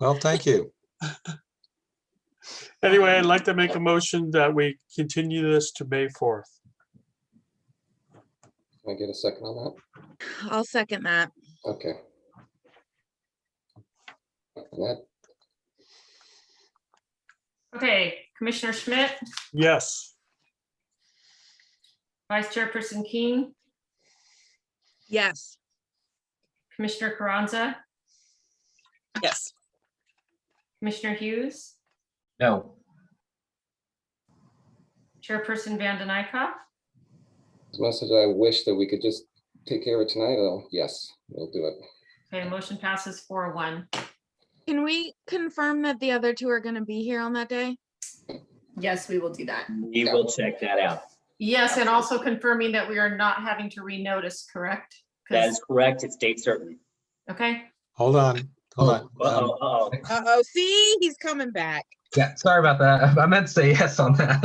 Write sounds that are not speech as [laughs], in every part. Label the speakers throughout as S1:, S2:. S1: Well, thank you.
S2: Anyway, I'd like to make a motion that we continue this to May 4th.
S3: Can I get a second on
S4: I'll second that.
S3: that? Okay. And That,
S5: Okay, Commissioner Schmidt,
S2: Yes,
S5: Vice Chairperson Keene,
S4: Yes.
S5: Commissioner Carranza,
S6: Yes.
S5: Commissioner Hughes,
S7: No,
S5: Chairperson Van Den Eyck.
S3: as much as I wish that we could just take care of it tonight, though, yes, we'll do it.
S5: Okay, motion passes four one.
S4: Can we confirm that the other two are gonna be here on that day?
S8: Yes, we will do that.
S7: we will check that out.
S5: Yes, and also confirming that we are not having to renotice, correct? 'Cause-
S7: That is correct. It's date certain.
S5: Okay,
S1: Hold on, hold on. Um,
S7: Uh-oh, uh-oh.
S6: Uh-oh, see, he's coming back.
S9: Yeah, sorry about that. I meant to say yes on that.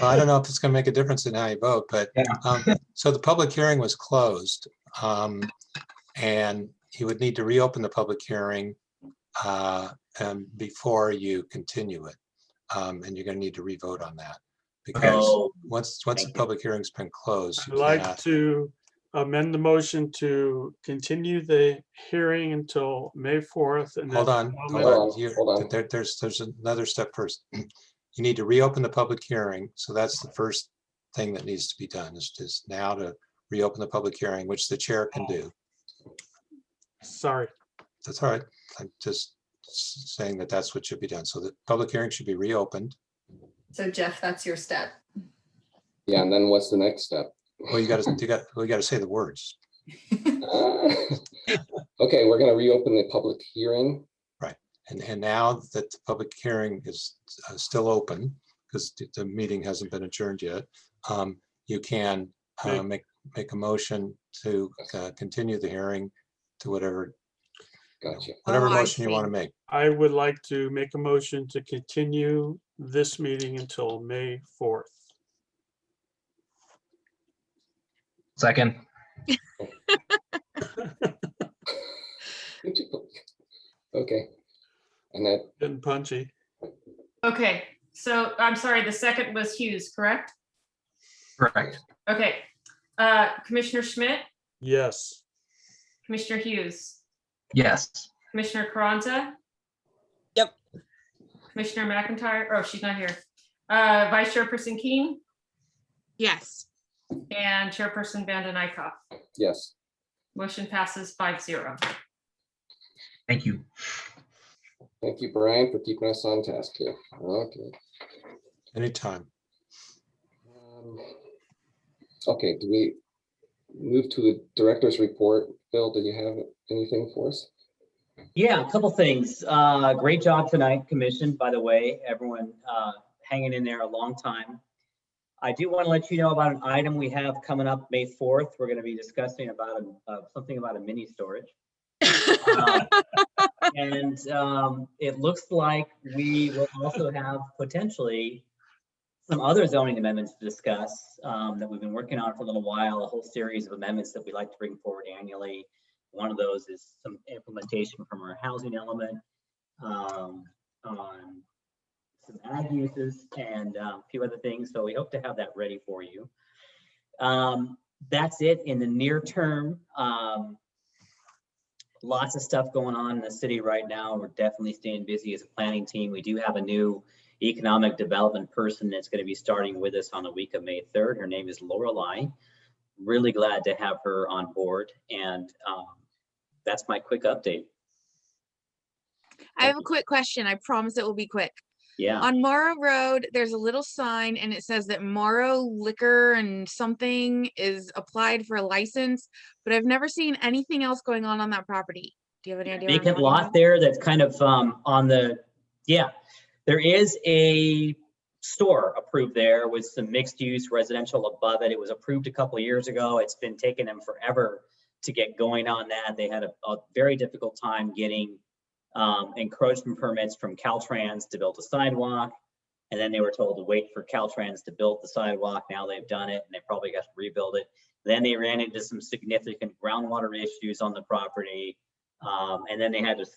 S1: well, I don't know if it's going to make a difference in how you vote, but,
S9: Yeah.
S1: um, so the public hearing was closed. um, And you would need to reopen the public hearing uh, um, before you continue it. Um, And you're going to need to revote on that. Because
S7: Oh,
S1: once, once the
S7: Thank you.
S1: public hearing's been closed,
S2: I'd
S1: you cannot
S2: like to amend the motion to continue the hearing until May 4th. and then-
S1: Hold on,
S2: I'll
S1: hold
S2: make-
S3: Hold
S1: on.
S3: on,
S1: You-
S3: hold on.
S1: there- There's, there's another step first. [clears throat] You need to reopen the public hearing. So that's the first thing that needs to be done is just now to reopen the public hearing, which the chair can do.
S2: Sorry,
S1: That's all right. I'm just s- saying that that's what should be done. So the public hearing should be reopened.
S8: So Jeff, that's your step.
S3: Yeah, and then what's the next step? [laughs]
S1: Well, you gotta, you got, well, you gotta say the words.
S3: Okay, we're gonna reopen the public hearing.
S1: And, and now that the public hearing is uh, still open, because the, the meeting hasn't been adjourned yet, um, you can uh,
S2: Right.
S1: make, make a motion to uh, continue the hearing to whatever, you know,
S3: Gotcha.
S1: whatever
S4: Oh, I
S1: motion you want to make.
S2: I would like to make a motion to continue this meeting until May 4th.
S9: Second.
S3: Okay. And that,
S2: Getting punchy.
S5: okay, so I'm sorry, the second was Hughes, correct?
S9: Correct.
S5: Okay, uh, Commissioner Schmidt,
S2: Yes,
S5: Commissioner Hughes,
S9: Yes.
S5: Commissioner Carranza.
S6: Yep.
S5: Commissioner McIntyre, oh, she's not here. Uh, Vice Chairperson Keene
S4: Yes.
S5: and Chairperson Van Den Eyck.
S3: yes,
S5: Motion passes five zero.
S9: Thank you.
S3: thank you, Brian, for keeping us on task here. Okay.
S1: Anytime.
S3: Um, Okay, do we move to the director's report? Phil, did you have anything for us?
S7: Yeah, a couple things. Uh, great job tonight, commission, by the way, everyone, uh, hanging in there a long time. I do want to let you know about an item we have coming up May 4th. We're going to be discussing about, a- uh, something about a mini storage. Uh, And um, it looks like we will also have potentially some other zoning amendments to discuss um, that we've been working on for a little while, a whole series of amendments that we like to bring forward annually. One of those is some implementation from our housing element um, on some ag uses and uh, a few other things. So we hope to have that ready for you. Um, That's it in the near term. Um, lots of stuff going on in the city right now. We're definitely staying busy as a planning team. We do have a new economic development person that's going to be starting with us on the week of May 3rd. Her name is Lorelei. Really glad to have her on board. And um, that's my quick update.
S4: I have a quick question. I promise it will be quick.
S7: Yeah.
S4: On Morrow Road, there's a little sign and it says that Morrow Liquor and something is applied for a license, but I've never seen anything else going on on that property. Do you have any idea? what I'm
S7: vacant
S4: talking
S7: lot
S4: about?
S7: there that's kind of um, on the, yeah. There is a store approved there with some mixed use residential above it. It was approved a couple of years ago. It's been taking them forever to get going on that. They had a, a very difficult time getting um, encroachment permits from Caltrans to build a sidewalk. And then they were told to wait for Caltrans to build the sidewalk. Now they've done it and they probably got to rebuild it. Then they ran into some significant groundwater issues on the property. Um, and then they had to scale